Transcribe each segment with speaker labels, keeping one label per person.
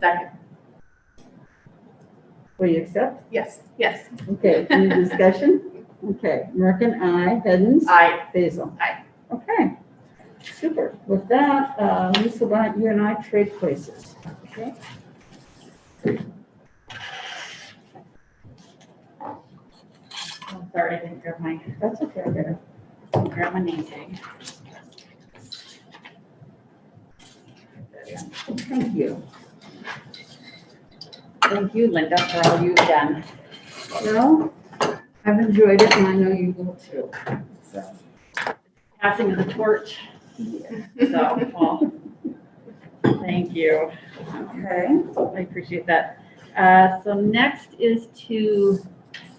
Speaker 1: Second,
Speaker 2: Will you accept?
Speaker 1: yes, yes,
Speaker 2: Okay, any discussion? Okay, Merkin, aye. Hens?
Speaker 1: I,
Speaker 2: Basil?
Speaker 1: Aye.
Speaker 2: Okay, super. With that, uh, Lisa, why don't you and I trade places? okay?
Speaker 1: I'm sorry, I didn't grab my,
Speaker 2: That's okay, I got it.
Speaker 1: grab my name tag. Thank you. Thank you, Linda, for all you've done.
Speaker 2: Well, I've enjoyed it and I know you will too. So,
Speaker 1: Passing of the torch,
Speaker 2: yeah.
Speaker 1: so, well, thank you.
Speaker 2: Okay.
Speaker 1: I appreciate that. Uh, So next is to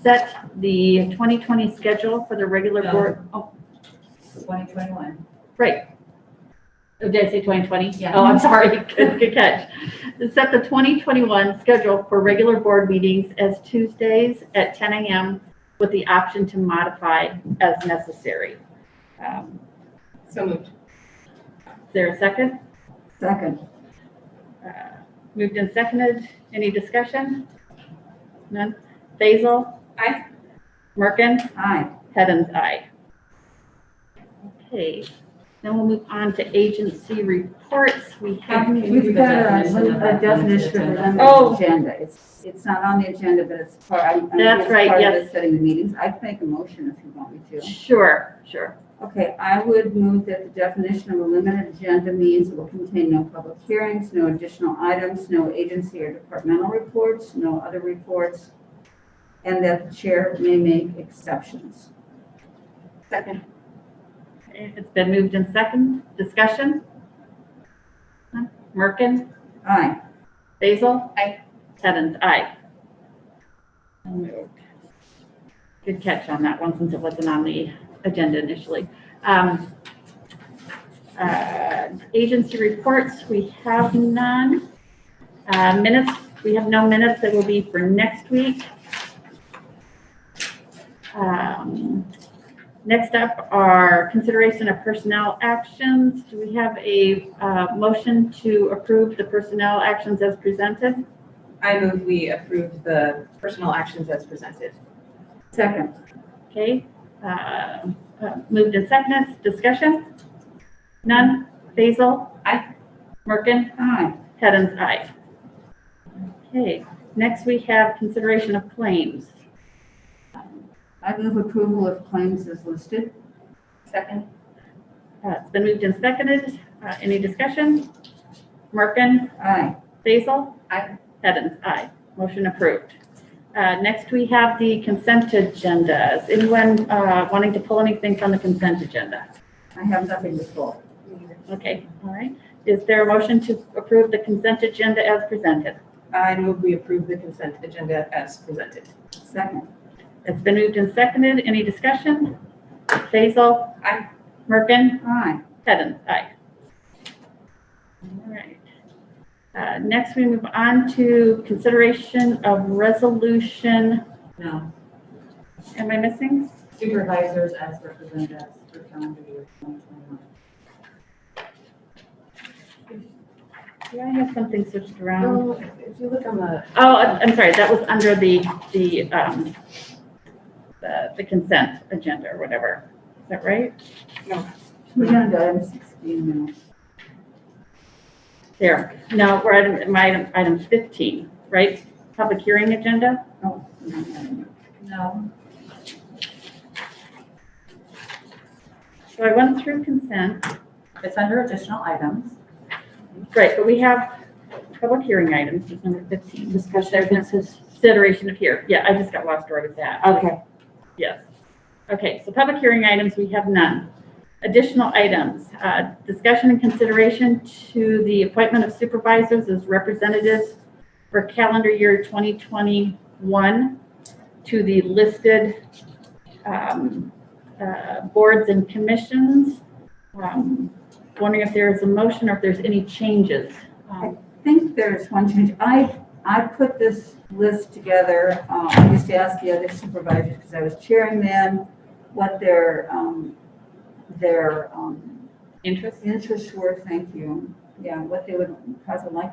Speaker 1: set the 2020 schedule for the regular
Speaker 3: No.
Speaker 1: board. Oh,
Speaker 3: 2021.
Speaker 1: Oh, did I say 2020?
Speaker 3: Yeah.
Speaker 1: Oh, I'm sorry. Good good catch. To Set the 2021 schedule for regular board meetings as Tuesdays at 10 a.m. with the option to modify as necessary. Um,
Speaker 3: So moved.
Speaker 1: Is there a second?
Speaker 2: Second.
Speaker 1: Uh, Moved and seconded. Any discussion? None? Basil?
Speaker 3: Aye.
Speaker 1: Merkin?
Speaker 2: Aye.
Speaker 1: Heaven's eye. Okay, then we'll move on to agency reports. We have,
Speaker 3: Can we do
Speaker 2: We've got a
Speaker 3: definition of
Speaker 2: a
Speaker 3: that on the
Speaker 2: definition for
Speaker 3: agenda?
Speaker 2: them
Speaker 1: Oh.
Speaker 2: on the agenda. It's, it's not on the agenda, but it's part, I, I think
Speaker 1: That's
Speaker 2: it's
Speaker 1: right,
Speaker 2: part of
Speaker 1: yes.
Speaker 2: the setting the meetings. I can make a motion if you want me to.
Speaker 1: sure, sure.
Speaker 2: Okay, I would move that the definition of a limited agenda means it will contain no public hearings, no additional items, no agency or departmental reports, no other reports, and that the chair may make exceptions.
Speaker 1: Second. It's been moved in second. Discussion? None? Merkin?
Speaker 2: Aye.
Speaker 1: Basil?
Speaker 3: Aye.
Speaker 1: Heaven's eye. So moved. Good catch on that one since it wasn't on the agenda initially. Um, uh, Agency reports, we have none. Uh, Minutes, we have no minutes that will be for next week. Um, Next up are consideration of personnel actions. Do we have a uh, motion to approve the personnel actions as presented?
Speaker 3: I move we approve the personal actions as presented.
Speaker 2: Second.
Speaker 1: Okay, uh, uh, moved and seconded, discussion? None? Basil?
Speaker 3: Aye.
Speaker 1: Merkin?
Speaker 2: Aye.
Speaker 1: Heddens, aye. Okay, next we have consideration of claims.
Speaker 2: I move approval of claims as listed.
Speaker 3: Second.
Speaker 1: Uh, It's been moved and seconded. Uh, Any discussion? Merkin?
Speaker 2: Aye.
Speaker 1: Basil?
Speaker 3: Aye.
Speaker 1: Heddens, aye. Motion approved. Uh, Next, we have the consent agenda. Is anyone uh, wanting to pull anything from the consent agenda?
Speaker 2: I have nothing to pull.
Speaker 1: Okay, all right. Is there a motion to approve the consent agenda as presented?
Speaker 3: I move we approve the consent agenda as presented.
Speaker 2: Second.
Speaker 1: It's been moved and seconded. Any discussion? Basil?
Speaker 3: Aye.
Speaker 1: Merkin?
Speaker 2: Aye.
Speaker 1: Heddens, aye. All right. Uh, Next, we move on to consideration of resolution,
Speaker 3: No.
Speaker 1: am I missing?
Speaker 3: Supervisors as representatives for calendar year 2021.
Speaker 1: Do I have something switched around?
Speaker 3: Oh, if you look on the,
Speaker 1: Oh, I'm I'm sorry, that was under the, the, um, the the consent agenda or whatever. Is that right?
Speaker 2: We're down to item 16 now.
Speaker 1: There. No, we're item, my item- item 15, right? Public hearing agenda?
Speaker 2: Oh, we don't have any.
Speaker 3: no,
Speaker 1: So I went through consent.
Speaker 3: it's under additional items.
Speaker 1: Great, but we have public hearing items, is number 15. Discussion. Consideration of here, yeah, I just got lost right at that.
Speaker 2: Okay.
Speaker 1: Yes. Okay, so public hearing items, we have none. Additional items, uh, discussion and consideration to the appointment of supervisors as representatives for calendar year 2021 to the listed um, uh, boards and commissions. Um, Wondering if there is a motion or if there's any changes. Um,
Speaker 2: think there's one change. I, I put this list together. um, I used to ask the other supervisors, because I was chairing them, what their, um, their um,
Speaker 1: Interest?
Speaker 2: interests were, thank you. Yeah, what they would, cause a like